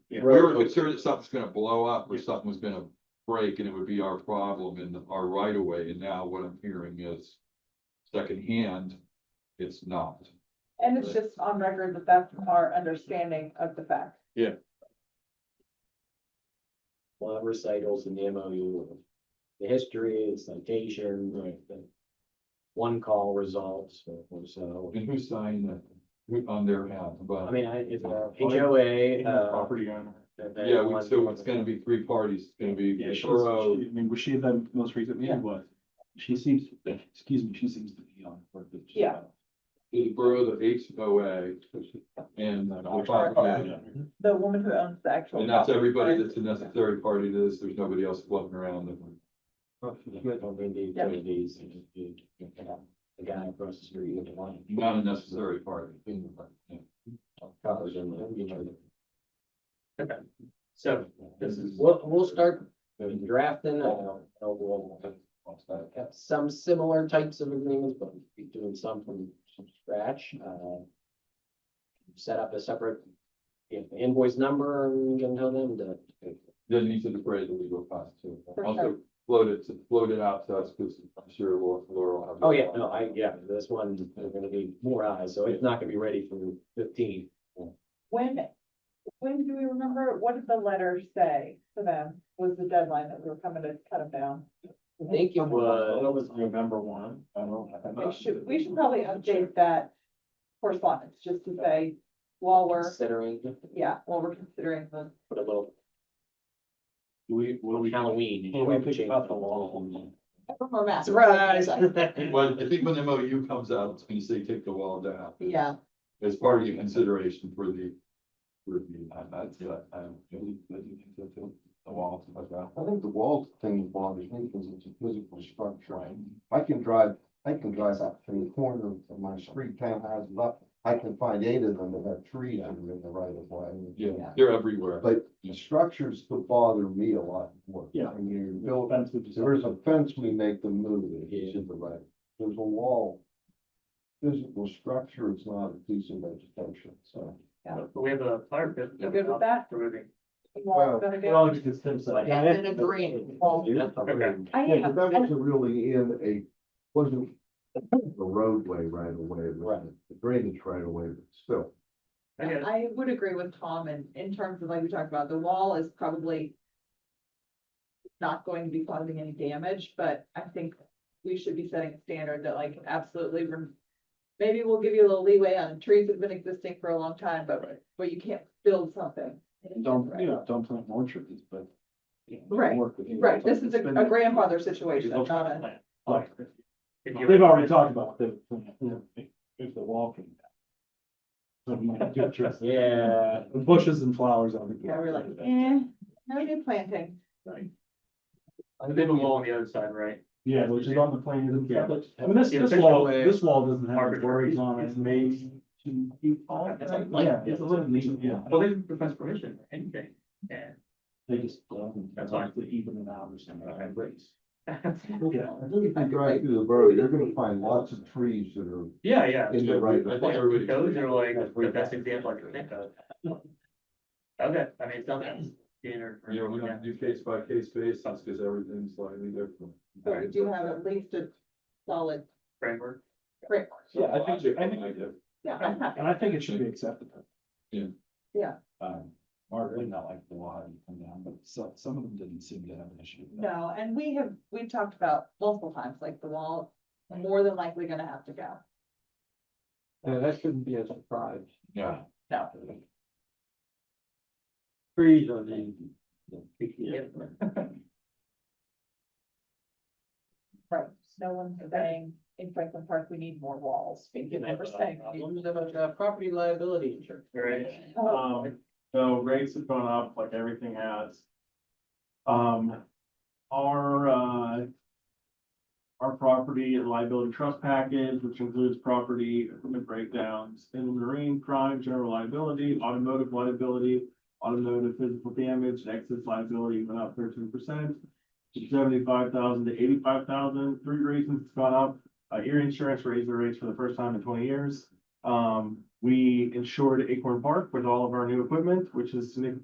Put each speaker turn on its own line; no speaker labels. Yeah.
We were concerned that something's gonna blow up or something was gonna break and it would be our problem and our right of way. And now what I'm hearing is secondhand, it's not.
And it's just on record that that's our understanding of the fact.
a lot of recitals in the MOU. of The history, the citation, like the one call results or so.
And who signed that? Who on their half?
I
But
mean, I, it's uh, a
Oh,
HOA, uh.
Property owner.
that- that
yeah, we-
one-
so it's gonna be three parties. It's gonna be
Yeah,
the
she
borough,
was, she- I mean, was she the most recent?
Yeah.
Yeah, was. She seems, excuse me, she seems to be on. for the-
Yeah.
the borough, the HOA and the property
Oh,
manager.
The woman who owns the actual.
And that's everybody that's a necessary party to this. There's nobody else floating around. that we're-
Don't bring these,
Yeah.
bring these, and you- you know, The guy across the street with the line.
Not a necessary party. Yeah.
Covers them, and, you know,
So this is,
We'll, we'll start drafting, uh, we'll have some similar types of agreements, but we'll be doing some from from scratch, uh. Set up a separate you know, invoice number and we can tell them to.
Then these are the phrase that we go past too.
For
Also
sure.
float it, to- float it out to us because I'm sure Laura, Laura will have.
Oh, yeah, no, I, yeah, this one, there are gonna be more eyes, so it's not gonna be ready for fifteen.
When, when do we remember, what did the letter say to them was the deadline that we were coming to cut them down?
I think it was,
was November one. I don't. I'm
We
Uh,
not-
should, we should probably update that correspondence just to say, while we're,
considering,
yeah, while we're considering the.
put a little
Do we, what do we?
Halloween.
Well, we picked up the wall.
Surprise!
Well, I think when the MOU comes out, it's gonna say take the wall down.
Yeah,
As part of your consideration for the. For the, I, I, I really, I think that the the wall.
I think the wall thing bothers me because it's a physical structure. I can drive, I can drive up to the corner of my street townhouses up. I can find eight of them that have trees that are in the right of way.
Yeah, they're everywhere.
But the structures could bother me a lot more.
Yeah.
I mean, you're building,
Offensive.
if there's a fence, we make them move it, it's in the right. There's a wall. Physical structure is not a piece of vegetation, so.
we have a fire pit.
You good with that?
Removing.
Well,
Well,
gonna
We're
go-
all just convinced that-
It's an agreement.
Okay.
I
Yeah,
am,
but that
I-
wasn't really in a, wasn't a roadway right away, it was a drainage right away, but still.
I get it.
I would agree with Tom in, in terms of like we talked about, the wall is probably not going to be causing any damage, but I think we should be setting a standard that like absolutely, rem- maybe we'll give you a little leeway on trees that have been existing for a long time, but, but you can't build something.
Don't,
Right.
you know, don't plant more trees, but. you know,
Right,
work with you.
Right, this is a
Spend-
a grandfather situation, not a,
Like,
If you-
They've already talked about the, if the wall came down.
Yeah.
Bushes and flowers on the.
yeah, we're like, eh, no new planting.
They have a wall on the other side, right?
Yeah, which is on the plan. and stuff, but- I mean, this,
Yeah,
this
official
wall,
way.
this wall doesn't have any
Arbitrary.
worries on it.
It's made
to be all.
It's like-
Yeah, it's a little neat, yeah.
Well, they didn't request permission or anything, and.
They just. um,
That's
like to Even it out or something.
Okay.
Race.
I think if you drive through the borough, you're gonna find lots of trees that are.
Yeah, yeah.
In the right-
I think everybody.
Those are like the best example I can think of. Okay, I mean, it's not that standard.
You know, we
yeah.
don't do case by case basis because everything's slightly different.
But we do have at least a solid
Framework.
framework.
Yeah, I think- I think-
Yeah, I'm happy.
And I think it should be accepted.
Yeah.
Yeah.
Um, Mark would not like the law having come down, but some, some of them didn't seem to have an issue. with that.
No, and we have, we've talked about multiple times, like the wall, more than likely gonna have to go.
that shouldn't be a surprise.
Yeah.
No,
Trees are the.
Yeah.
right, no one's saying in Franklin Park, we need more walls, we can never say. we need-
Women about uh, property liability insurance.
Right.
Oh,
Um, so rates have gone up like everything has. Um, our, uh. Our property and liability trust package, which includes property equipment breakdowns, inland marine crime, general liability, automotive liability. Automotive physical damage, and excess liability went up thirteen percent. Seventy-five thousand to eighty-five thousand. Three reasons it's gone up, uh, ear insurance raised the rates for the first time in twenty years. Um, we insured Acorn Park with all of our new equipment, which is significant.